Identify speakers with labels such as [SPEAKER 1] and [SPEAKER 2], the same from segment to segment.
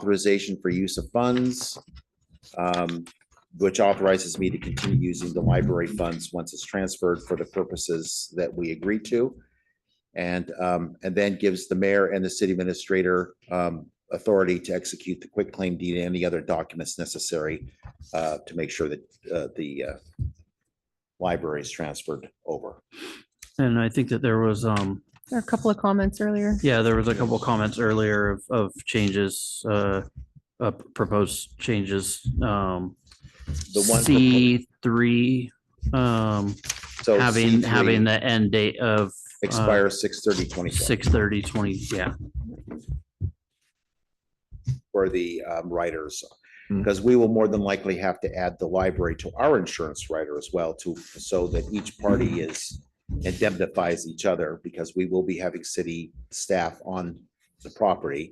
[SPEAKER 1] authorization for use of funds, um, which authorizes me to continue using the library funds once it's transferred for the purposes that we agreed to. And, um, and then gives the mayor and the city administrator, um, authority to execute the quick claim deed and any other documents necessary uh, to make sure that, uh, the, uh, library is transferred over.
[SPEAKER 2] And I think that there was, um,
[SPEAKER 3] There are a couple of comments earlier.
[SPEAKER 2] yeah, there was a couple of comments earlier of, of changes, uh, uh, proposed changes, um,
[SPEAKER 1] The one.
[SPEAKER 2] C three, um,
[SPEAKER 1] so
[SPEAKER 2] having,
[SPEAKER 1] C3
[SPEAKER 2] having uh, the end date of
[SPEAKER 1] Expires six thirty twenty six
[SPEAKER 2] six thirty twenty, yeah.
[SPEAKER 1] for the um, writers.
[SPEAKER 4] Mm.
[SPEAKER 1] Because we will more than likely have to add the library to our insurance writer as well to, so that each party is indemnifies each other because we will be having city staff on the property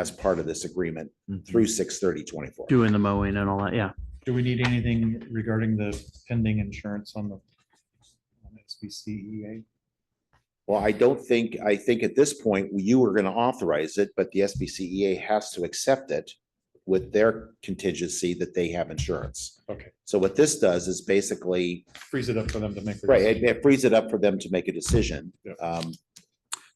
[SPEAKER 1] as part of this agreement through six thirty twenty four.
[SPEAKER 2] Doing the mowing and all that, yeah.
[SPEAKER 4] Do we need anything regarding the pending insurance on the on SBCEA?
[SPEAKER 1] Well, I don't think, I think at this point, you were gonna authorize it, but the SBCEA E has to accept it with their contingency that they have insurance.
[SPEAKER 4] Okay.
[SPEAKER 1] So what this does is basically
[SPEAKER 4] Freeze it up for them to make. the-
[SPEAKER 1] Right, it- it frees it up for them to make a decision.
[SPEAKER 4] Yeah.
[SPEAKER 1] Um,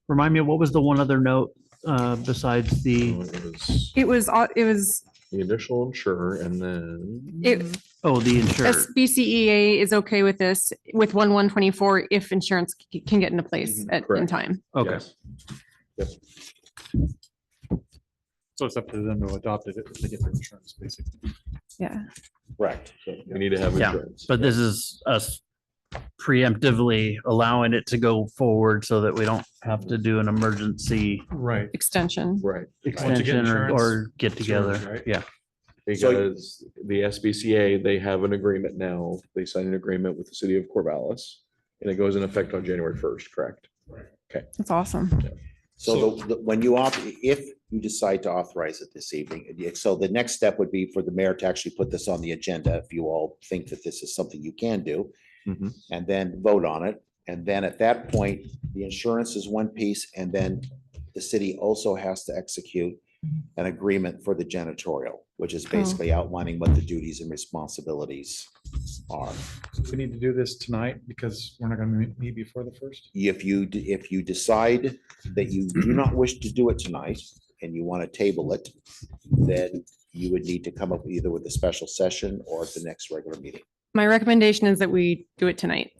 [SPEAKER 2] Remind me, what was the one other note, uh, besides the,
[SPEAKER 5] So It was
[SPEAKER 3] It was, au- it was,
[SPEAKER 5] the initial insurer and then.
[SPEAKER 3] it,
[SPEAKER 2] oh, the insurer?
[SPEAKER 3] SBCEA E is okay with this, with one one twenty-four, if insurance c- can get into place
[SPEAKER 4] Mhm,
[SPEAKER 2] Mm-hmm.
[SPEAKER 3] at, in
[SPEAKER 5] correct.
[SPEAKER 3] time.
[SPEAKER 2] Okay,
[SPEAKER 5] Yes.
[SPEAKER 4] So it's up to them to adopt it if they get their insurance, basically.
[SPEAKER 3] Yeah.
[SPEAKER 1] correct.
[SPEAKER 5] We need to have
[SPEAKER 2] Yeah,
[SPEAKER 5] insurance.
[SPEAKER 2] but this is us preemptively allowing it to go forward so that we don't have to do an emergency
[SPEAKER 4] Right.
[SPEAKER 3] Extension.
[SPEAKER 5] Right,
[SPEAKER 4] Once you get
[SPEAKER 2] extension or,
[SPEAKER 4] insurance,
[SPEAKER 2] or get
[SPEAKER 4] insurance,
[SPEAKER 2] together.
[SPEAKER 4] right?
[SPEAKER 2] Yeah.
[SPEAKER 1] So-
[SPEAKER 5] because the SBCA, they have an agreement now. They signed an agreement with the city of Corvallis. And it goes in effect on January first, correct?
[SPEAKER 3] That's awesome.
[SPEAKER 1] So the- the- when you auth, if you decide to authorize it this evening, and yet- so the next step would be for the mayor to actually put this on the agenda if you all think that this is something you can do.
[SPEAKER 5] Mhm.
[SPEAKER 1] And then vote on it. And then at that point, the insurance is one piece and then the city also has to execute an agreement for the janitorial, which is basically outlining what the duties and responsibilities are.
[SPEAKER 4] We need to do this tonight because we're not going to meet before the first.
[SPEAKER 1] if you, d- if you decide that you do not wish to do it tonight and you want to table it, then you would need to come up either with a special session or at the next regular meeting.
[SPEAKER 3] My recommendation is that we do it tonight,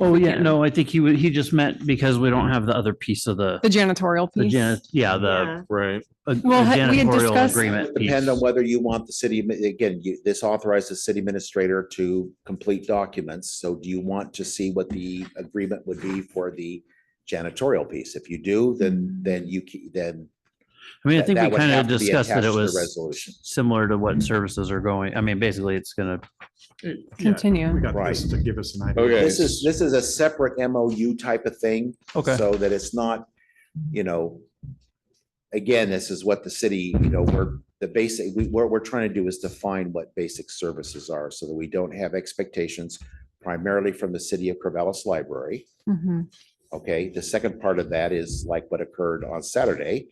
[SPEAKER 2] Oh,
[SPEAKER 3] We
[SPEAKER 2] yeah.
[SPEAKER 3] can.
[SPEAKER 2] No, I think he would, he just meant because we don't have the other piece of the,
[SPEAKER 3] the janitorial
[SPEAKER 2] the
[SPEAKER 3] piece.
[SPEAKER 2] jan- yeah, the
[SPEAKER 5] Right.
[SPEAKER 2] uh,
[SPEAKER 3] Well, ha- we had
[SPEAKER 2] janitorial
[SPEAKER 3] discussed-
[SPEAKER 2] agreement.
[SPEAKER 1] Depend on
[SPEAKER 2] piece.
[SPEAKER 1] whether you want the city, admi- again, you- this authorizes city administrator to complete documents. So do you want to see what the agreement would be for the janitorial piece? If you do, then, then you, ke- then.
[SPEAKER 2] I mean, I
[SPEAKER 1] that-
[SPEAKER 2] think we
[SPEAKER 1] that would
[SPEAKER 2] kind
[SPEAKER 1] have
[SPEAKER 2] of
[SPEAKER 1] to be
[SPEAKER 2] discussed that
[SPEAKER 1] attached
[SPEAKER 2] it
[SPEAKER 1] to the
[SPEAKER 2] was
[SPEAKER 1] Resolution.
[SPEAKER 2] similar to what services are going. I mean, basically it's gonna,
[SPEAKER 4] We
[SPEAKER 3] Continue.
[SPEAKER 4] got this
[SPEAKER 1] Right.
[SPEAKER 4] to give us an idea.
[SPEAKER 5] Okay.
[SPEAKER 1] This is, this is a separate MOU type of thing.
[SPEAKER 2] okay.
[SPEAKER 1] So that it's not, you know, again, this is what the city, you know, we're, the basic, we, what we're trying to do is define what basic services are so that we don't have expectations primarily from the city of Corvallis Library.
[SPEAKER 3] Mhm.
[SPEAKER 1] Okay, the second part of that is like what occurred on Saturday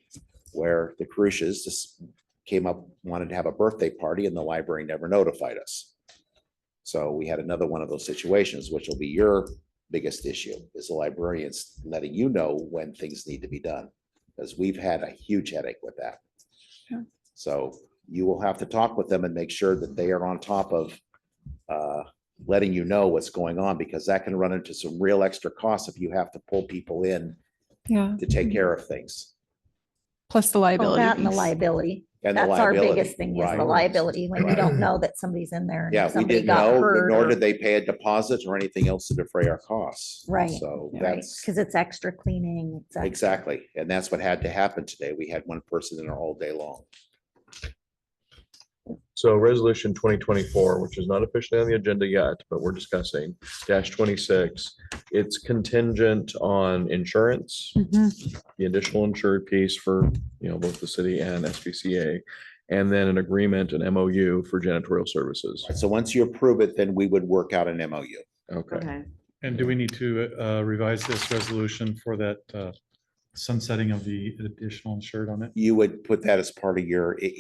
[SPEAKER 1] where the Carushes just came up, wanted to have a birthday party and the library never notified us. So we had another one of those situations, which will be your biggest issue is the librarians letting you know when things need to be done. Because we've had a huge headache with that.
[SPEAKER 3] Yeah.
[SPEAKER 1] So you will have to talk with them and make sure that they are on top of uh, letting you know what's going on because that can run into some real extra costs if you have to pull people in
[SPEAKER 3] Yeah,
[SPEAKER 1] to take care of things.
[SPEAKER 3] plus the
[SPEAKER 6] Well,
[SPEAKER 3] liability.
[SPEAKER 6] Oh, That and the
[SPEAKER 3] piece.
[SPEAKER 6] liability.
[SPEAKER 1] And the
[SPEAKER 6] That's our
[SPEAKER 1] liability,
[SPEAKER 6] biggest thing is
[SPEAKER 1] right.
[SPEAKER 6] the liability when you
[SPEAKER 1] Right.
[SPEAKER 6] don't know that somebody's in there. and
[SPEAKER 1] Yeah, we
[SPEAKER 6] somebody
[SPEAKER 1] didn't
[SPEAKER 6] got
[SPEAKER 1] know,
[SPEAKER 6] hurt
[SPEAKER 1] nor
[SPEAKER 6] or-
[SPEAKER 1] did they pay a deposit or anything else to defray our costs.
[SPEAKER 6] Right,
[SPEAKER 1] So
[SPEAKER 6] Right,
[SPEAKER 1] that's,
[SPEAKER 6] because it's extra cleaning. it's extra-
[SPEAKER 1] exactly, and that's what had to happen today. We had one person in there all day long.
[SPEAKER 5] So resolution twenty twenty-four, which is not officially on the agenda yet, but we're discussing dash twenty-six. It's contingent on insurance.
[SPEAKER 3] Mhm.
[SPEAKER 5] the additional insured piece for, you know, both the city and SPCA. And then an agreement, an MOU for janitorial services.
[SPEAKER 1] So once you approve it, then we would work out an MOU.
[SPEAKER 5] Okay.
[SPEAKER 4] And do we need to uh, revise this resolution for that uh, sunsetting of the additional insured on it?
[SPEAKER 1] You would put that as part of your, i-